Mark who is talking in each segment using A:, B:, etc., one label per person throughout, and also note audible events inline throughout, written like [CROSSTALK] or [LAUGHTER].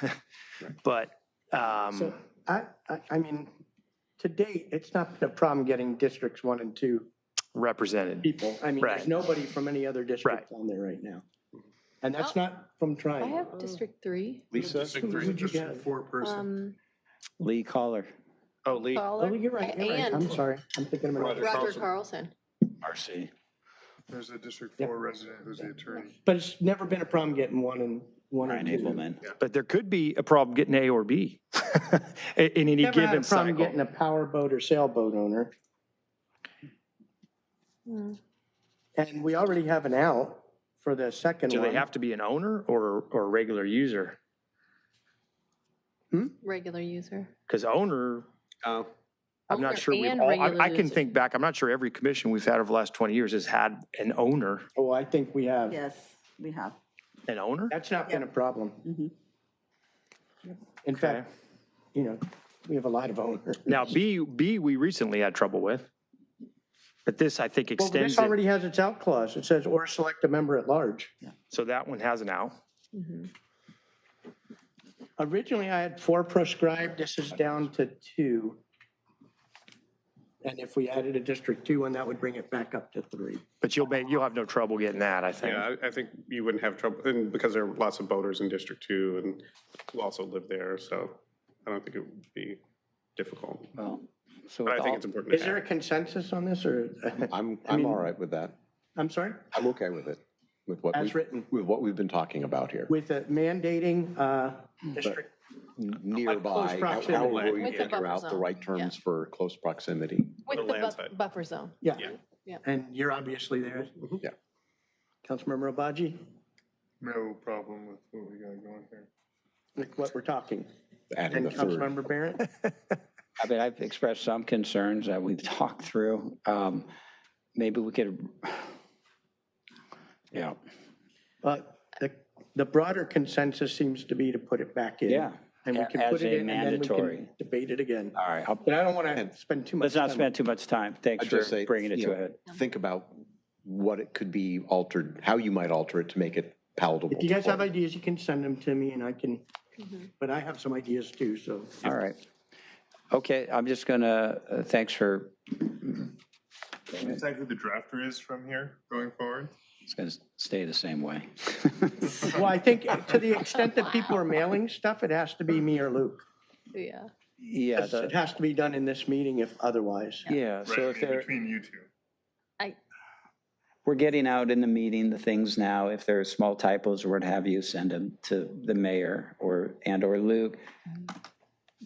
A: [LAUGHS] But, um,
B: So I, I, I mean, to date, it's not been a problem getting districts one and two
A: represented.
B: people. I mean,
A: Right.
B: there's nobody from any other district on there right now. And that's not from
C: I
B: trying.
C: have District Three.
D: Lisa?
B: Who'd you get?
E: Four person.
C: Um,
F: Lee Caller.
A: Oh, Lee,
B: Oh,
C: Caller
B: you're right, you're right. I'm
C: and
B: sorry. I'm thinking of another.
C: Roger
D: Carlson.
C: Carlson.
F: RC.
E: There's a District
B: Yep.
E: Four resident who's the attorney.
B: But it's never been a problem getting one and, one
F: Brian
B: and two.
F: Abelman.
A: but there could be a problem getting A or B [LAUGHS] in in any
B: Never had a
A: given
B: problem getting
A: cycle.
B: a powerboat or sailboat owner.
C: Hmm.
B: And we already have an out for the second
A: Do
B: one.
A: they have to be an owner or, or a regular user?
C: regular user.
A: Because owner,
D: Oh,
A: I'm not
C: Owner
A: sure we've
C: and
A: all, I-
C: regular
A: I can
C: user.
A: think back, I'm not sure every commission we've had over the last 20 years has had an owner.
B: Oh, I think we have.
G: Yes, we have.
A: An owner?
B: That's not been a problem.
G: Mhm.
B: In fact, you know, we have a lot of owners.
A: Now, B, B, we recently had trouble with. But this, I think,
B: Well,
A: extends
B: this
A: it.
B: already has its out clause. It says, or select a member at large.
A: So that one has an out.
B: Originally, I had four proscribed. This is down to two. And if we added a District Two one, that would bring it back up to three.
A: But you'll, ma- you'll have no trouble getting that, I think.
D: yeah, I, I think you wouldn't have trouble, and because there are lots of boaters in District Two and who also live there, so I don't think it would be difficult.
F: Well, so with
D: But I think
F: all,
D: it's important
B: Is
D: to
B: there a
D: have.
B: consensus on this or, [LAUGHS]
H: I'm,
B: mean-
H: I'm all right with that.
B: I'm sorry?
H: I'm okay with it, with what,
B: As
H: we-
B: written,
H: with what we've been talking about here.
B: with a mandating, uh, district.
H: Nearby, how- how
B: proximity.
H: will we
C: With the
H: figure
C: buffer
H: out the
C: zone,
H: right terms for close proximity?
C: With
D: The
C: the
D: land
C: bu-
D: side.
C: buffer zone.
B: Yeah.
C: Yeah.
B: And you're obviously there.
H: Yeah.
B: Councilmember Obaji,
E: No problem with what we got going here.
B: with what we're talking.
H: Adding
B: And
H: the third.
B: Councilmember Barrett?
F: I mean, I've expressed some concerns that we've talked through. Um, maybe we could, [SIGHS] yeah,
B: But the, the broader consensus seems to be to put it back in.
F: yeah.
B: And we can
F: As
B: put
F: a
B: it in and then we
F: mandatory.
B: can debate it again.
F: All right, I'll-
B: But I don't want to spend too much.
F: let's not
B: time.
F: spend too much time. Thanks
H: I'd
F: for
H: just say,
F: bringing it
H: you
F: to a
H: know,
F: head.
H: Think about what it could be altered, how you might alter it to make it palatable.
B: If you guys
H: for-
B: have ideas, you can send them to me and I can, but I have some ideas too, so.
F: All right. Okay, I'm just gonna, uh, thanks for,
E: Is that who the drafter is from here going forward?
F: it's gonna stay the same way. [LAUGHS]
B: Well, I think uh, to the extent that people are mailing stuff, it has to be me or Luke.
C: Yeah.
F: Yeah,
B: It
F: the-
B: has to be done in this meeting if otherwise.
F: yeah, so
E: Right,
F: if
E: in
F: there,
E: Between you two.
F: we're getting out in the meeting the things now. If there are small typos or what have you, send them to the mayor or, and/or Luke.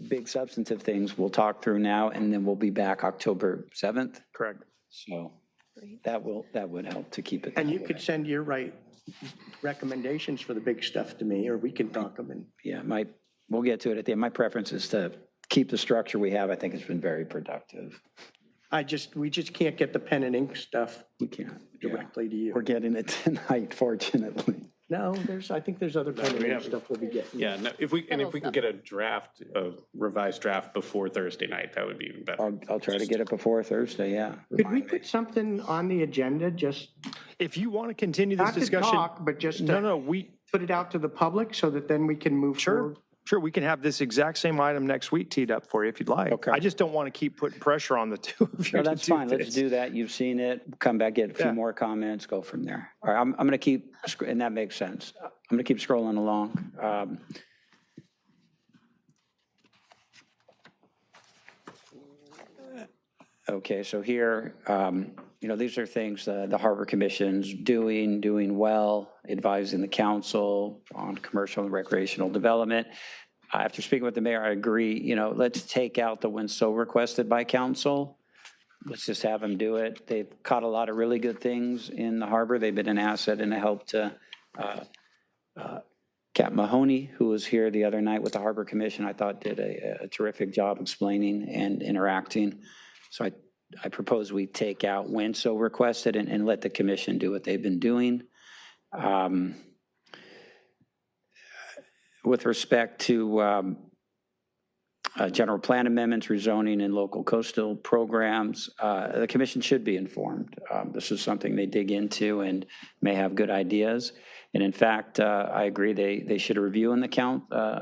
F: Big substantive things we'll talk through now, and then we'll be back October 7th.
A: Correct.
F: So that will, that would help to keep it.
B: And you
F: that
B: could
F: way.
B: send your right recommendations for the big stuff to me, or we can talk them and
F: Yeah, my, we'll get to it at the end. My preference is to keep the structure we have. I think it's been very productive.
B: I just, we just can't get the pen and ink stuff
F: We can't. yeah.
B: directly to
F: We're
B: you.
F: getting it [LAUGHS] tonight, fortunately.
B: No, there's, I think there's other pen and ink stuff we'll be getting.
D: Yeah, no, if we, and if we can get a draft, a revised draft before Thursday night, that would be even better.
F: I'll, I'll try to get it before Thursday, yeah.
B: Could we put something on the agenda, just
A: If you want to continue this
B: not to
A: discussion,
B: talk, but just
A: no,
B: to
A: no, we,
B: put it out to the public so that then we can move
A: Sure,
B: forward?
A: sure, we can have this exact same item next week teed up for you if you'd like.
F: Okay.
A: I just don't want to keep putting pressure on the [LAUGHS] two of you
F: No,
A: to
F: that's fine,
A: this.
F: let's do that, you've seen it, come back, get a few
A: Yeah.
F: more comments, go from there. All right, I'm, I'm gonna keep, sc- and that makes sense, I'm gonna keep scrolling along. Um, Okay, so here, um, you know, these are things uh, the Harbor Commission's doing, doing well, advising the council on commercial and recreational development. After speaking with the mayor, I agree, you know, let's take out the ones so requested by council. Let's just have them do it. They've caught a lot of really good things in the harbor. They've been an asset and a help to uh, uh, Cap Mahoney, who was here the other night with the Harbor Commission, I thought did a a terrific job explaining and interacting. So I, I propose we take out when so requested and, and let the commission do what they've been doing. Um, With respect to um, uh, general plan amendments, rezoning and local coastal programs, uh, the commission should be informed. Um, This is something they dig into and may have good ideas. And in fact, uh, I agree, they, they should review in the count, uh,